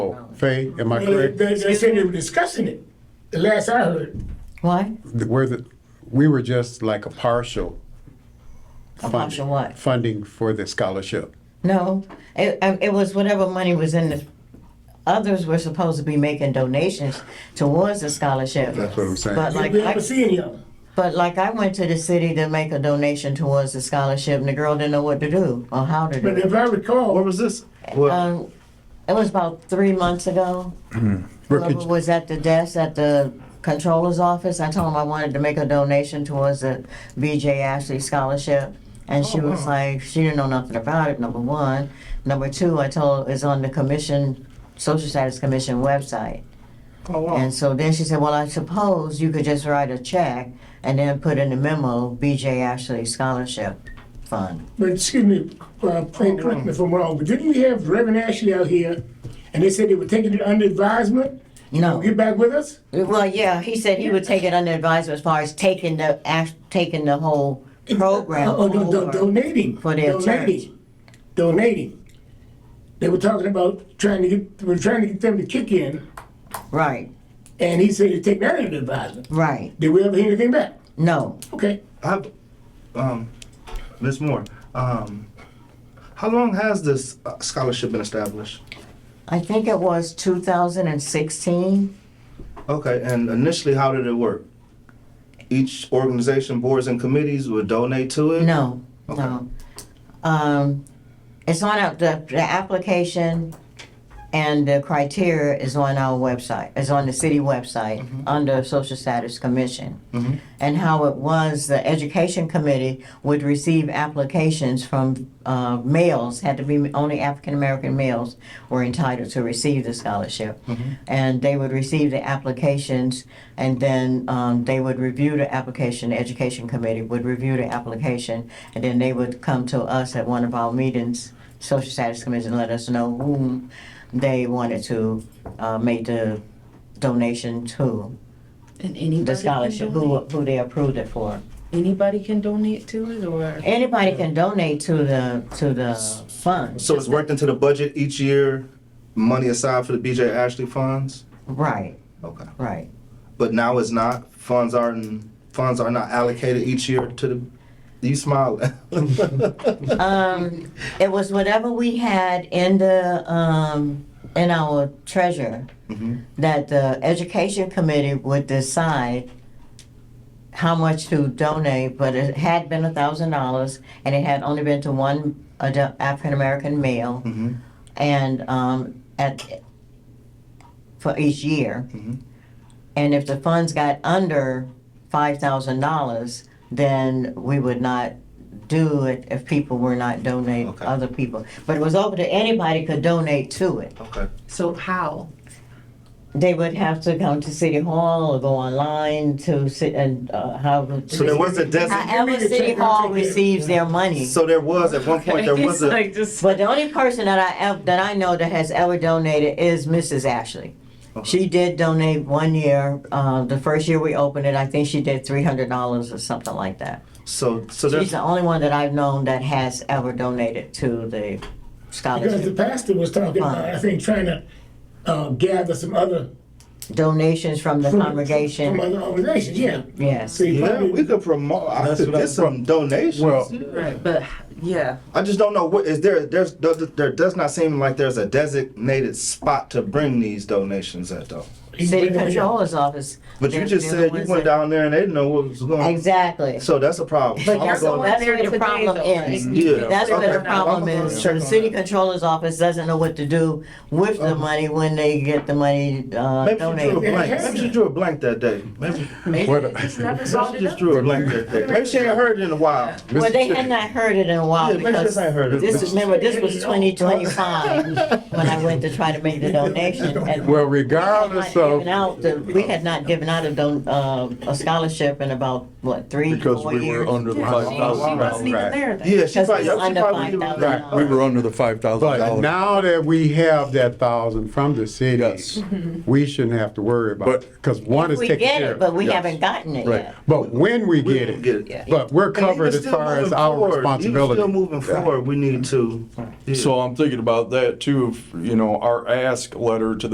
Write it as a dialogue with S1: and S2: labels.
S1: vote. Faye, am I
S2: They,
S1: correct?
S2: they, they said they were discussing it, the last I heard.
S3: What?
S1: Where the, we were just like a partial.
S3: A
S1: funding-
S3: partial what?
S1: Funding for the scholarship.
S3: No, it, I- it was whatever money was in the, others were supposed to be making donations towards the scholarship.
S1: That's what I'm saying.
S3: But
S2: We
S3: like,
S2: never
S3: I,
S2: see any of them.
S3: but like I went to the city to make a donation towards the scholarship and the girl didn't know what to do or how to do
S2: But
S3: it.
S2: if I recall,
S4: Where was this? Well,
S3: Um, it was about three months ago.
S1: Brooke,
S3: Whoever
S1: could-
S3: was at the desk at the controller's office, I told him I wanted to make a donation towards the BJ Ashley Scholarship. And
S4: Oh,
S3: she was like, she didn't know nothing about it, number one. Number two, I told her it's on the commission, Social Status Commission website.
S4: oh, wow.
S3: And so then she said, well, I suppose you could just write a check and then put in the memo, BJ Ashley Scholarship Fund.
S2: but excuse me, uh, Frank, correct me if I'm wrong, but didn't we have Reverend Ashley out here? And they said they were taking it under advisement?
S3: No.
S2: Get back with us?
S3: Well, yeah, he said he would take it under advisement as far as taking the, act- taking the whole program
S2: Oh, do- do-
S3: over.
S2: donating.
S3: for their
S2: donating, Donating. They were talking about trying to get, we're trying to get them to kick in,
S3: Right,
S2: and he said he'd take that under advisement.
S3: right.
S2: Did we ever hear anything back?
S3: No.
S2: Okay.
S4: I have, um, Ms. Moore, um, how long has this uh, scholarship been established?
S3: I think it was 2016.
S4: Okay, and initially, how did it work? Each organization, boards, and committees would donate to it?
S3: No, no. Um, it's on our, the, the application and the criteria is on our website, is on the city website under Social Status Commission. And how it was, the Education Committee would receive applications from uh, males, had to be only African American males were entitled to receive the scholarship. And they would receive the applications and then um, they would review the application, the Education Committee would review the application and then they would come to us at one of our meetings, Social Status Commission, let us know whom they wanted to uh, make the donation to
S5: And anybody
S3: the scholarship,
S5: Can donate,
S3: who, who they approved it for.
S5: anybody can donate to it, or
S3: Anybody can donate to the, to the fund,
S4: So it's worked into the budget each year, money aside for the BJ Ashley funds?
S3: right,
S4: Okay.
S3: right.
S4: But now it's not, funds aren't, funds are not allocated each year to the, you smiling.
S3: Um, it was whatever we had in the, um, in our treasure, that the education committee would decide how much to donate, but it had been a thousand dollars, and it had only been to one adu- African-American male.
S4: Mhm.
S3: And, um, at, for each year.
S4: Mhm.
S3: And if the funds got under five thousand dollars, then we would not do it if people were not donating,
S4: Okay.
S3: other people. But it was open to, anybody could donate to it.
S4: Okay.
S5: so how?
S3: They would have to come to City Hall or go online to sit and, uh, however.
S4: So there was a designated,
S3: However, City Hall receives their money.
S4: so there was, at one point, there was
S5: It's
S4: a,
S5: like just
S3: But the only person that I ev- that I know that has ever donated is Mrs. Ashley. She did donate one year. Uh, the first year we opened it, I think she did three hundred dollars or something like that.
S4: so, so
S3: She's
S4: there's,
S3: the only one that I've known that has ever donated to the
S2: Because the
S3: scholarship
S2: pastor was talking about, I think, trying to uh, gather some other.
S3: donations from the
S2: From
S3: congregation.
S2: other organizations, yeah.
S3: Yes,
S2: So he
S4: yeah,
S2: probably-
S4: we could promote, I
S1: That's
S4: could
S1: what I-
S4: get some donations.
S1: well,
S5: right, but yeah,
S4: I just don't know what is there. There's there, there does not seem like there's a designated spot to bring these donations at though.
S2: he's
S3: city
S2: bringing it up.
S3: controller's office.
S4: But you
S3: They're-
S4: just
S3: they're the
S4: said you
S3: ones
S4: went
S3: that-
S4: down there and they didn't know what was going. on.
S3: Exactly.
S4: So that's a problem.
S3: But
S4: I'm
S3: that's
S4: gonna
S3: the
S4: go-
S3: that's
S5: there
S3: where the
S5: today,
S3: problem
S5: though,
S3: ends.
S5: right?
S4: Yeah.
S3: That's where the
S4: Okay.
S3: problem
S4: I'm gonna
S3: is.
S4: check
S3: The
S4: on
S3: city
S4: that.
S3: controller's office doesn't know what to do with the money when they get the money uh,
S4: Maybe she drew a
S3: donated.
S4: blank. Maybe she drew a blank that day. Maybe
S1: what-
S4: she just drew a blank that day. Maybe she ain't heard it in a while.
S3: Well, they had not heard it in a while
S4: Yeah, maybe she
S3: because
S4: just ain't heard it.
S3: this, remember, this was twenty twenty-five when I went to try to make the donation. and-
S1: well, regardless So-
S3: given out, the- we had not given out a don, uh, a scholarship in about, what, three,
S6: Because
S3: four
S6: we were
S3: years?
S6: under the
S5: Yeah,
S6: five
S5: she, she
S6: thousand
S5: wasn't
S6: dollars.
S5: even
S1: Right.
S5: there then.
S4: Yeah, she
S3: Because
S4: probably,
S3: it's
S4: she
S3: under
S4: probably.
S3: five
S4: didn't-
S3: thousand
S1: Right.
S3: dollars.
S6: We were under the five thousand
S1: But
S6: dollars.
S1: now that we have that thousand from the
S6: Yes.
S1: city, we shouldn't have to worry about it,
S6: But-
S1: because one is
S3: Mm-hmm. We
S1: taken
S3: get
S1: care
S3: it, but
S1: of.
S3: we
S6: Yes.
S3: haven't gotten it
S6: Right.
S3: yet.
S1: But when we
S4: We
S1: get
S4: don't
S1: it, but we're
S4: And even
S1: covered as
S4: still
S1: far as
S4: moving
S1: our
S4: forward, even
S1: responsibility.
S4: Still moving forward, we need to. yeah.
S6: So I'm thinking about that too, if, you know, our ask letter to the